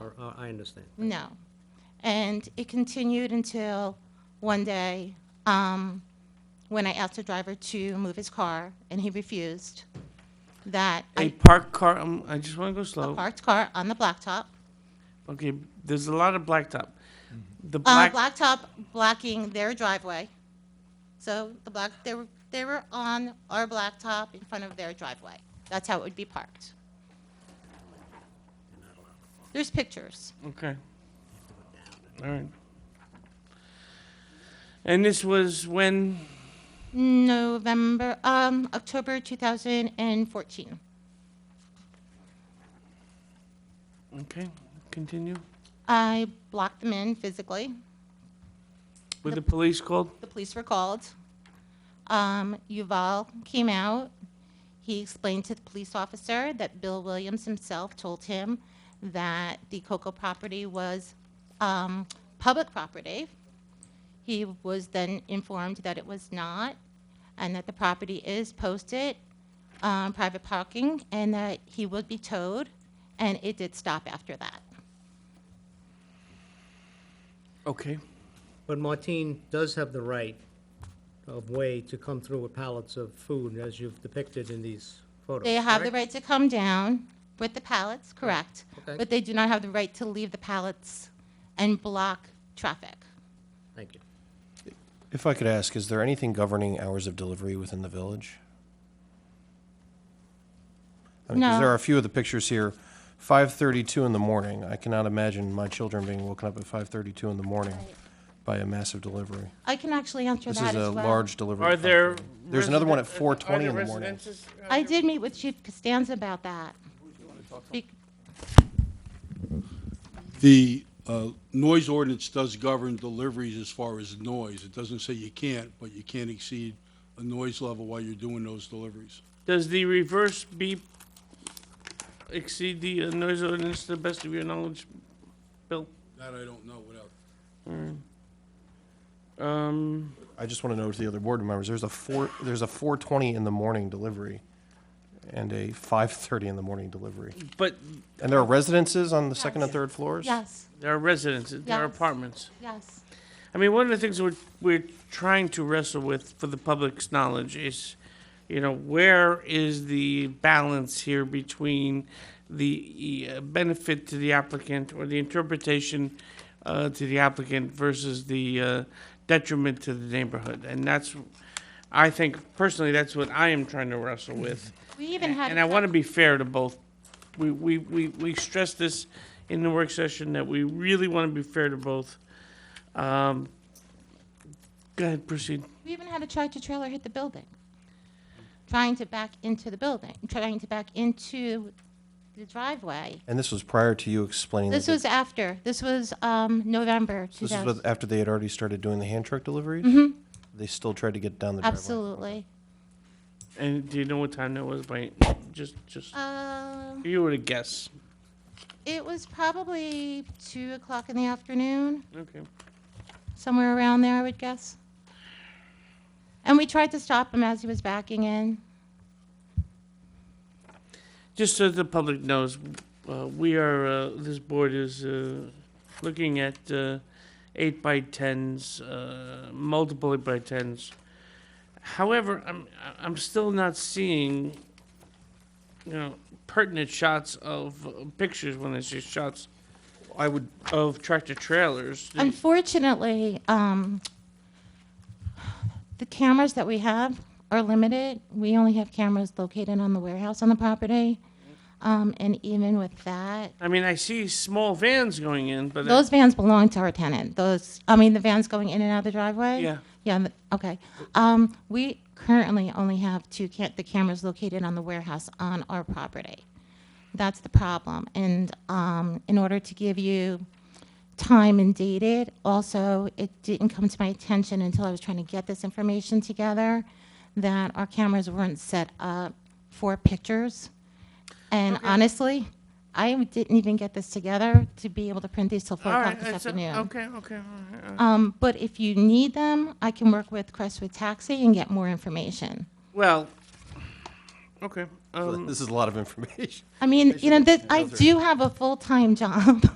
Or- or I understand. No. And it continued until one day um, when I asked the driver to move his car and he refused. That A I parked car, um, I just want to go slow. parked car on the blacktop. Okay, there's a lot of blacktop. The Uh, black, blacktop blocking their driveway. So the black, they were, they were on our blacktop in front of their driveway. That's how it would be parked. There's pictures. okay. All right. And this was when, November, um, October 2014. okay, continue. I blocked them in physically. Were the police called? The police were called. Um, Yuval came out. He explained to the police officer that Bill Williams himself told him that the Coco property was um, public property. He was then informed that it was not, and that the property is posted um, private parking, and that he would be towed. And it did stop after that. Okay. But Martine does have the right of way to come through with pallets of food, as you've depicted in these photos. They have the correct? right to come down with the pallets, correct. Okay. But they do not have the right to leave the pallets and block traffic. Thank you. If I could ask, is there anything governing hours of delivery within the village? I mean, 'cause No. there are a few of the pictures here, 5:32 in the morning. I cannot imagine my children being woken up at 5:32 in the morning by a massive delivery. I can actually answer This that is a as well. large delivery. Are at there? 5:32. There's another one at residen- 4:20 are in the there morning. residences? I did meet with Chief Costanza about that. Be- The uh, noise ordinance does govern deliveries as far as noise. It doesn't say you can't, but you can't exceed a noise level while you're doing those deliveries. Does the reverse beep exceed the uh, noise ordinance to the best of your knowledge, Bill? That I don't know without. Um, I just want to know to the other board members, there's a four, there's a 4:20 in the morning delivery and a 5:30 in the morning delivery. but And there are residences on the second and Yes. third floors? Yes, there are residences, there are Yes. apartments. yes. I mean, one of the things we're, we're trying to wrestle with for the public's knowledge is, you know, where is the balance here between the uh, benefit to the applicant or the interpretation uh, to the applicant versus the uh, detriment to the neighborhood? And that's, I think personally, that's what I am trying to wrestle with. We even had. And I want to be fair to both. We, we, we, we stressed this in the work session that we really want to be fair to both. Um, go ahead, proceed. We even had a tractor trailer hit the building, trying to back into the building, trying to back into the driveway. And this was prior to you explaining. that This they- was after, this was um, November This is 2000. what- after they had already started doing the hand truck deliveries? They still tried to get down the driveway? Mm-hmm. Absolutely. And do you know what time that was? By just, just Um, if you were to guess. it was probably two o'clock in the afternoon, Okay. somewhere around there, I would guess. And we tried to stop him as he was backing in. Just so the public knows, uh, we are, uh, this board is, uh, looking at, uh, eight by tens, uh, multiple eight by tens. However, I'm, I- I'm still not seeing, you know, pertinent shots of uh, pictures when I see shots I would, of tractor trailers. Unfortunately, um, the cameras that we have are limited. We only have cameras located on the warehouse on the property. Um, and even with that, I mean, I see small vans going in, but. I- Those vans belong to our tenant. Those, I mean, the vans going in and out of the driveway? Yeah. Yeah, and the- okay. Um, we currently only have two ca- the cameras located on the warehouse on our property. That's the problem. And, um, in order to give you time and dated, also, it didn't come to my attention until I was trying to get this information together that our cameras weren't set up for pictures. And honestly, I didn't even get this together to be able to print these till four All o'clock right, this it's a- afternoon. okay, okay. all right, all right. Um, but if you need them, I can work with Crestwood Taxi and get more information. Well, um, okay, um. this is a lot of information. I mean, you know, this, I do have a full-time job.